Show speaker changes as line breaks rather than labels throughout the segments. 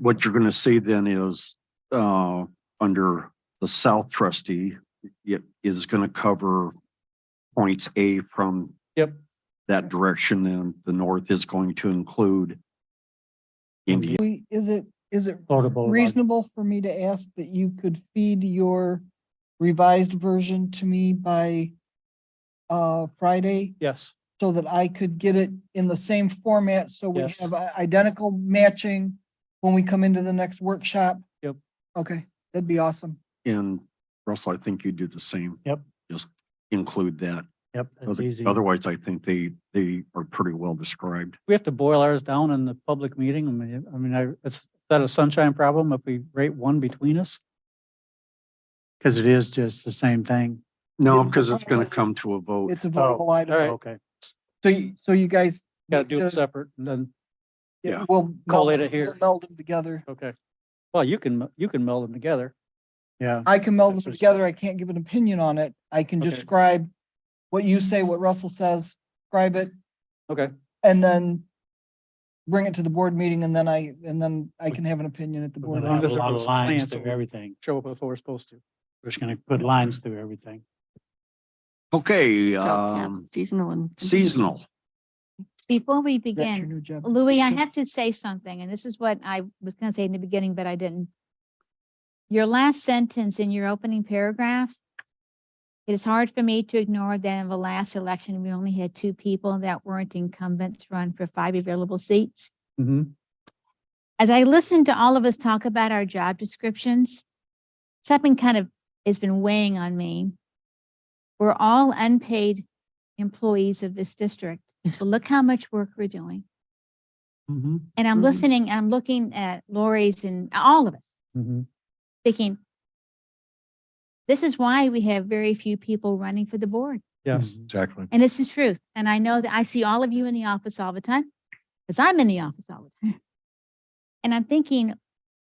what you're gonna see then is, uh, under the south trustee, it is gonna cover points A from
Yep.
that direction, and the north is going to include Indian.
We, is it, is it
Florida Boulevard.
reasonable for me to ask that you could feed your revised version to me by uh, Friday
Yes,
so that I could get it in the same format, so we
Yes.
have i- identical matching when we come into the next workshop?
Yep.
Okay, that'd be awesome.
And Russell, I think you did the same.
Yep.
Just include that.
yep, that's
Other-
easy.
Otherwise, I think they, they are pretty well described.
We have to boil ours down in the public meeting. I mean, I mean, I, it's that a sunshine problem if we rate one between us? Because it is just the same thing.
No, because it's gonna come to a vote.
Oh,
It's a viable item.
Okay,
So you, so you guys.
gotta do
uh,
it separate and then,
yeah.
We'll.
Call
meld-
it a here.
we'll Meld them together.
okay. Well, you can, m- you can meld them together. Yeah.
I can meld
That's
them
what she
together. I can't give an opinion on it. I can
Okay.
describe what you say, what Russell says, describe it,
Okay,
and then bring it to the board meeting, and then I, and then I can have an opinion at the
We're
board.
then
gonna have
have
a
meeting.
a
lot of
different
lines
plan, so
through
we-
everything.
show up with what we're supposed to.
We're just gonna put lines through everything.
Okay,
So, yeah,
um,
Seasonal and.
seasonal.
Before we
Is that your
begin,
new job?
Louis, I
Sure.
have to say something, and this is what I was gonna say in the beginning, but I didn't. Your last sentence in your opening paragraph. It is hard for me to ignore that in the last election, we only had two people that weren't incumbents run for five available seats.
Mm-hmm.
As I listened to all of us talk about our job descriptions, something kind of has been weighing on me. We're all unpaid employees of this district, so look how much work we're doing.
Mm-hmm.
And I'm
Mhm.
listening, I'm looking at Lori's and all of us
Mm-hmm.
thinking, this is why we have very few people running for the board.
Yes.
Exactly.
And it's the truth. And I know that I see all of you in the office all the time because I'm in the office all the time. And I'm thinking,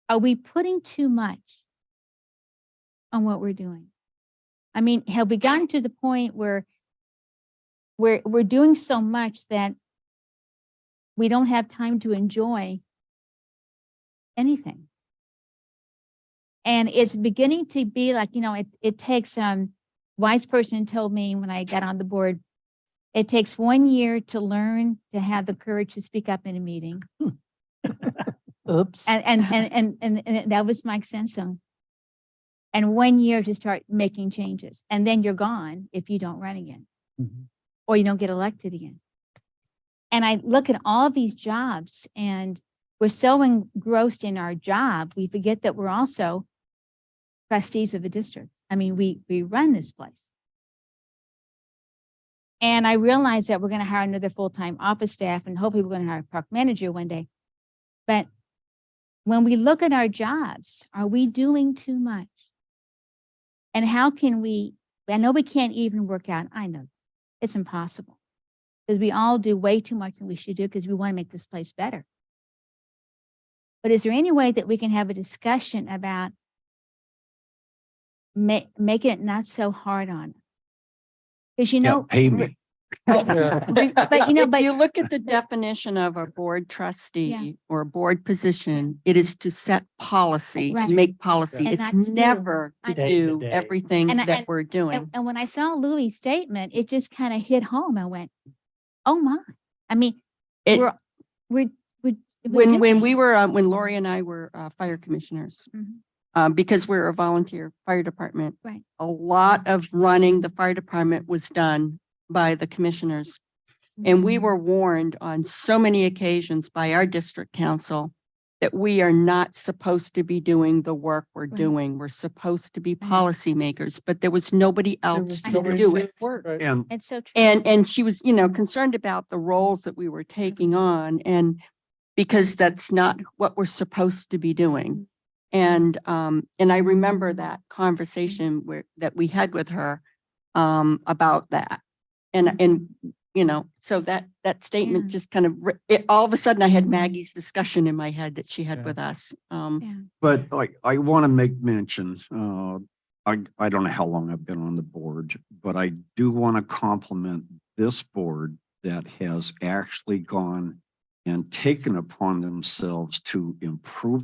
are we putting too much on what we're doing? I mean, have we gotten to the point where we're, we're doing so much that we don't have time to enjoy anything? And it's beginning to be like, you know, it, it takes, um, wise person told me when I got on the board, it takes one year to learn to have the courage to speak up in a meeting.
Oops.
And, and, and, and- and, and that was Mike Sensum. And one year to start making changes. And then you're gone if you don't run again
Mhm.
or you don't get elected again. And I look at all these jobs and we're so engrossed in our job, we forget that we're also trustees of a district. I mean, we, we run this place. And I realize that we're going to hire another full-time office staff and hopefully we're going to hire a park manager one day. But when we look at our jobs, are we doing too much? And how can we, I know we can't even work out, I know, it's impossible. Because we all do way too much than we should do because we want to make this place better. But is there any way that we can have a discussion about ma- making it not so hard on? Because you
Yeah,
know.
pay
re-
me.
But you know, but
If you look at the definition of a board trustee or a board position, it is to set policy,
Right.
to make policy.
And
It's
not to do-
never to
I-
Day to
do
day.
everything
And I-
that
and-
we're
And,
doing.
and when I saw Louis' statement, it just kind of hit home. I went, oh my. I mean,
It,
we're, we're, we're. we're
when, when
doing
we
it.
were, uh, when Lori and I were uh, fire commissioners,
Mhm.
uh, because we're a volunteer fire department.
Right.
A lot of running the fire department was done by the commissioners. And
Mm.
we were warned on so many occasions by our district council that we are not supposed to be doing the work we're
Right.
doing. We're supposed to be
Right.
policymakers, but there was nobody else
was
to
nobody
do
to
it.
Right.
And
It's so true.
And, and she was, you know, concerned about the roles that we were taking on and because that's not what we're supposed to be doing. And, um, and I remember that conversation where, that we had with her, um, about that. And, and, you know, so that, that statement
Yeah.
just kind of, re- it, all of a sudden I had Maggie's discussion in my head that she had
Yeah.
with us. Um,
Yeah.
But like, I want to make mention, uh, I, I don't know how long I've been on the board, but I do want to compliment this board that has actually gone and taken upon themselves to improve